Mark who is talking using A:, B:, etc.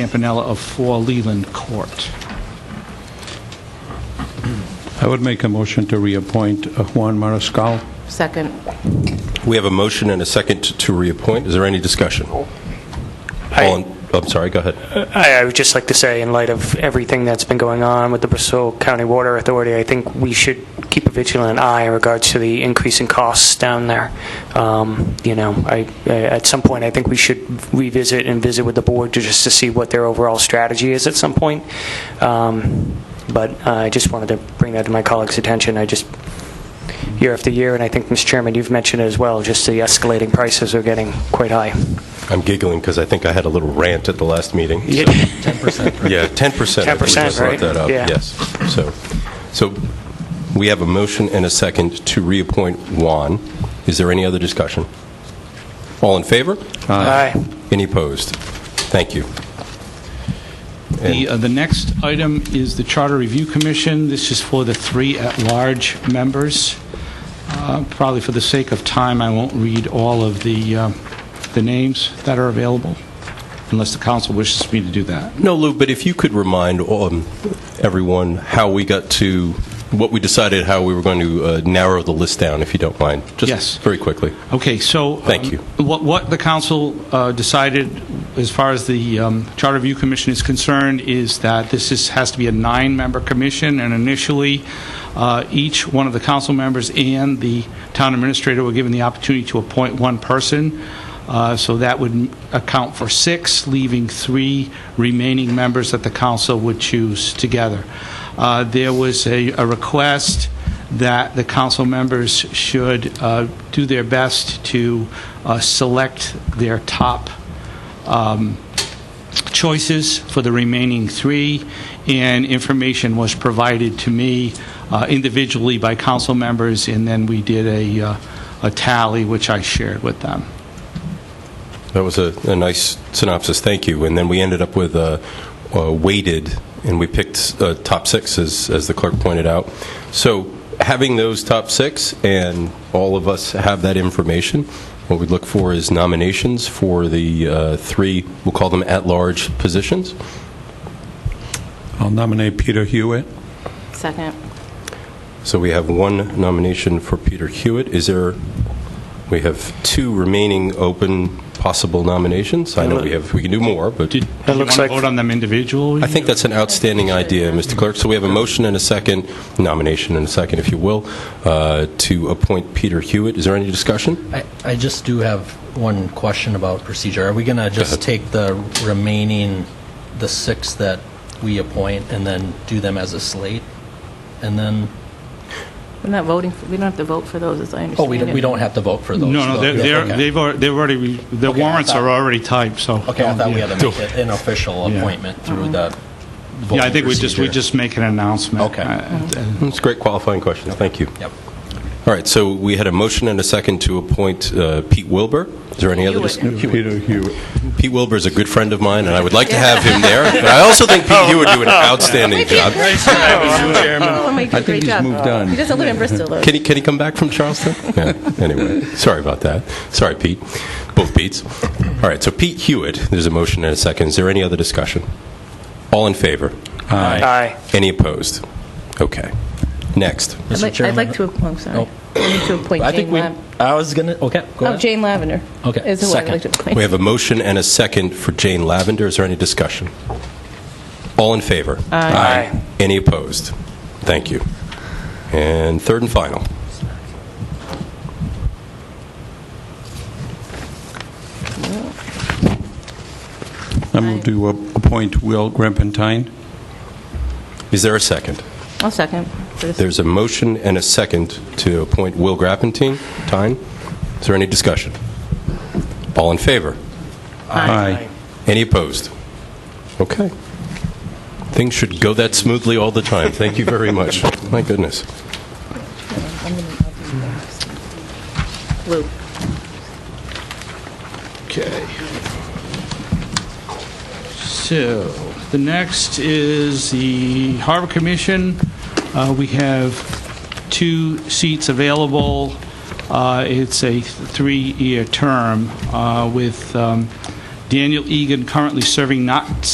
A: Campanella of 4 Leland Court.
B: I would make a motion to reappoint uh, Juan Mariscal.
C: Second.
D: We have a motion and a second to- to reappoint. Is there any discussion? All in- oh, I'm sorry, go ahead.
E: I, I would just like to say, in light of everything that's been going on with the Bristol County Water Authority, I think we should keep a vigilant eye in regards to the increasing costs down there. Um, you know, I, I, at some point, I think we should revisit and visit with the board to, just to see what their overall strategy is at some point. Um, but uh, I just wanted to bring that to my colleagues' attention. I just year after year, and I think, Mr. Chairman, you've mentioned it as well. Just the escalating prices are getting quite high.
D: I'm giggling because I think I had a little rant at the last meeting. so- Yeah, 10%. I think we
E: 10%,
D: just brought
E: right?
D: that up,
E: Yeah.
D: Yes. So, so we have a motion and a second to reappoint Juan. Is there any other discussion? All in favor?
E: Aye.
D: Any opposed? Thank you.
A: The uh, the next item is the Charter Review Commission. This is for the three at-large members. Uh, Probably for the sake of time, I won't read all of the uh, the names that are available, unless the council wishes me to do that.
D: No, Lou, but if you could remind um, everyone how we got to, what we decided how we were going to uh, narrow the list down, if you don't mind.
A: Yes.
D: Just very quickly.
A: Okay, so... um,
D: Thank you.
A: What what the council uh, decided, as far as the um, Charter Review Commission is concerned, is that this is, has to be a nine-member commission, and initially, uh, each one of the council members and the town administrator were given the opportunity to appoint one person, Uh, so that would m- account for six, leaving three remaining members that the council would choose together. Uh, There was a a request that the council members should uh, do their best to uh, select their top um, choices for the remaining three, and information was provided to me uh, individually by council members, and then we did a uh, a tally, which I shared with them.
D: That was a, a nice synopsis. Thank you. And then we ended up with uh, uh, weighted, and we picked uh, top six, as, as the clerk pointed out. So having those top six, and all of us have that information, what we look for is nominations for the uh, three, we'll call them at-large positions.
B: I'll nominate Peter Hewitt.
C: Second.
D: So we have one nomination for Peter Hewitt. Is there, we have two remaining open possible nominations. I know we have, we can do more, but...
A: Did
E: That
A: you want
E: looks
A: to
E: like-
A: vote on them individually?
D: I think that's an outstanding idea, Mr. Clerk. So we have a motion and a second, nomination and a second, if you will, uh, to appoint Peter Hewitt. Is there any discussion?
F: I, I just do have one question about procedure. Are we going to just take the remaining, the six that we appoint, and then do them as a slate? And then,
C: We're not voting, for- we don't have to vote for those, as I
F: oh,
C: understand
F: we
C: it.
F: don't, we don't have to vote for those?
A: No, no, they're-
F: Okay.
A: they're- they've al- they've already, re- the
F: Okay, I
A: warrants are
F: thought-
A: already typed, so...
F: Okay, I thought we
A: Yeah.
F: had to make it an official appointment through
C: Uh-huh.
F: the voting
A: Yeah, I think we just, we
F: procedure.
A: just make an announcement.
F: Okay.
A: Uh,
D: It's a great qualifying question. Thank you.
F: Yep.
D: All right, so we had a motion and a second to appoint uh, Pete Wilbur. Is there any other discussion?
B: Peter Hewitt.
D: Pete Wilbur is a good friend of mine, and I would like to have him there. But I also think Pete Hewitt would do an outstanding job.
C: Oh, my God,
B: I think
C: great
B: he's
C: job.
B: moved on.
C: He doesn't live in Bristol, though.
D: Can he, can he come back from Charleston? Yeah, anyway, sorry about that. Sorry, Pete. Both Pete's. All right, so Pete Hewitt, there's a motion and a second. Is there any other discussion? All in favor?
E: Aye.
D: Any opposed? Okay. Next.
C: I'd
F: Mr.
C: like- I'd
F: Chairman?
C: like to, oh, I'm sorry. I need to appoint
F: I
C: Jane
F: think we,
C: Lavender.
F: I was going to, okay, go
C: Oh,
F: ahead.
C: Jane Lavender.
F: Okay,
C: Is who I'd like to
F: second.
C: appoint.
D: We have a motion and a second for Jane Lavender. Is there any discussion? All in favor?
E: Aye. Aye.
D: Any opposed? Thank you. And third and final.
B: I move to a- appoint Will Grimpentine.
D: Is there a second?
C: I'll second. for this.
D: There's a motion and a second to appoint Will Grappentine. Time? Is there any discussion? All in favor?
B: Aye.
D: Any opposed? Okay. Things should go that smoothly all the time. Thank you very much. My goodness.
C: Lou.
A: Okay. So, the next is the Harbor Commission. Uh, We have two seats available. Uh, It's a three-year term uh, with um, Daniel Egan currently serving not